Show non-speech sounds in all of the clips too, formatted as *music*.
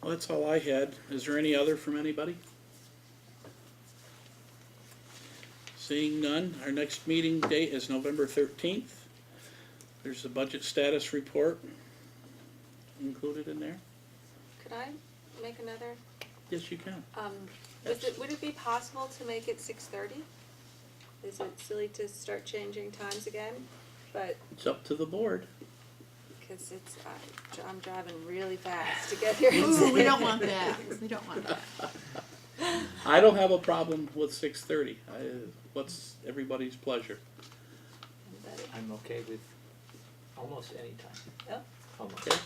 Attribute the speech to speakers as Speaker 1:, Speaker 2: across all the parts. Speaker 1: Well, that's all I had. Is there any other from anybody? Seeing none, our next meeting date is November thirteenth. There's the budget status report included in there.
Speaker 2: Could I make another?
Speaker 1: Yes, you can.
Speaker 2: Um, was it, would it be possible to make it six thirty? Is it silly to start changing times again? But,
Speaker 1: It's up to the board.
Speaker 2: because it's, I- I'm driving really fast to get here.
Speaker 3: Ooh,
Speaker 1: *laughs*
Speaker 3: we don't want that. We don't want that.
Speaker 1: I don't have a problem with six thirty. I, what's everybody's pleasure?
Speaker 2: Everybody.
Speaker 4: I'm okay with almost any time,
Speaker 2: Oh,
Speaker 4: almost.
Speaker 1: Okay.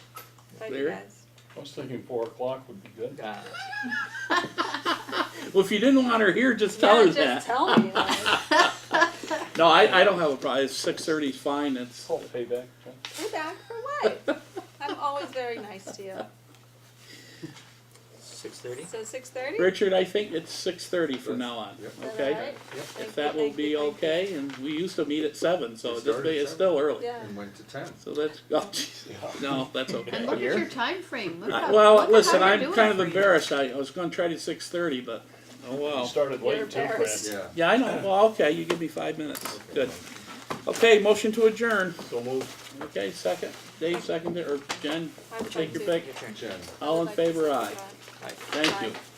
Speaker 2: bye, you
Speaker 1: Larry?
Speaker 2: guys.
Speaker 5: I was thinking four o'clock would be good.
Speaker 4: Uh,
Speaker 1: Well, if you didn't want her here, just tell
Speaker 2: Yeah,
Speaker 1: her that.
Speaker 2: just tell me.
Speaker 1: *laughs*
Speaker 2: like,
Speaker 1: No, I, I don't have a problem. Six thirty is fine. It's,
Speaker 5: Call payback. huh?
Speaker 2: We're back for what? I'm always very nice to you.
Speaker 4: Six thirty?
Speaker 2: So six thirty?
Speaker 1: Richard, I think it's six thirty from now on, okay? If that will be okay, and we used to meet at seven, so
Speaker 6: It
Speaker 1: it just be,
Speaker 6: started at
Speaker 1: it's still early.
Speaker 2: Yeah.
Speaker 6: and went to town.
Speaker 1: So that's, *laughs* oh, geez. no, that's
Speaker 3: And
Speaker 1: okay.
Speaker 3: look at your time frame. Look
Speaker 1: I-
Speaker 3: how-
Speaker 1: Well,
Speaker 3: look at
Speaker 1: listen,
Speaker 3: how you're
Speaker 1: I'm
Speaker 3: doing
Speaker 1: kind of
Speaker 3: for you.
Speaker 1: embarrassed. I, I was gonna try to six thirty, but, oh
Speaker 5: You
Speaker 1: well.
Speaker 5: started
Speaker 2: You're
Speaker 5: late too, Fran.
Speaker 2: embarrassed.
Speaker 6: Yeah.
Speaker 1: Yeah, I know. Well, okay, you give me five minutes. Good. Okay, motion to adjourn.
Speaker 5: So move.
Speaker 1: Okay, second. Dave seconded, or Jen,
Speaker 2: I'm
Speaker 1: take
Speaker 2: trying
Speaker 1: your
Speaker 2: to-
Speaker 1: pick.
Speaker 4: Your turn.
Speaker 6: Jen.
Speaker 1: All in
Speaker 2: I'd like to
Speaker 1: favor,
Speaker 2: see
Speaker 1: aye.
Speaker 2: that.
Speaker 4: Aye.
Speaker 1: Thank you.
Speaker 2: Aye.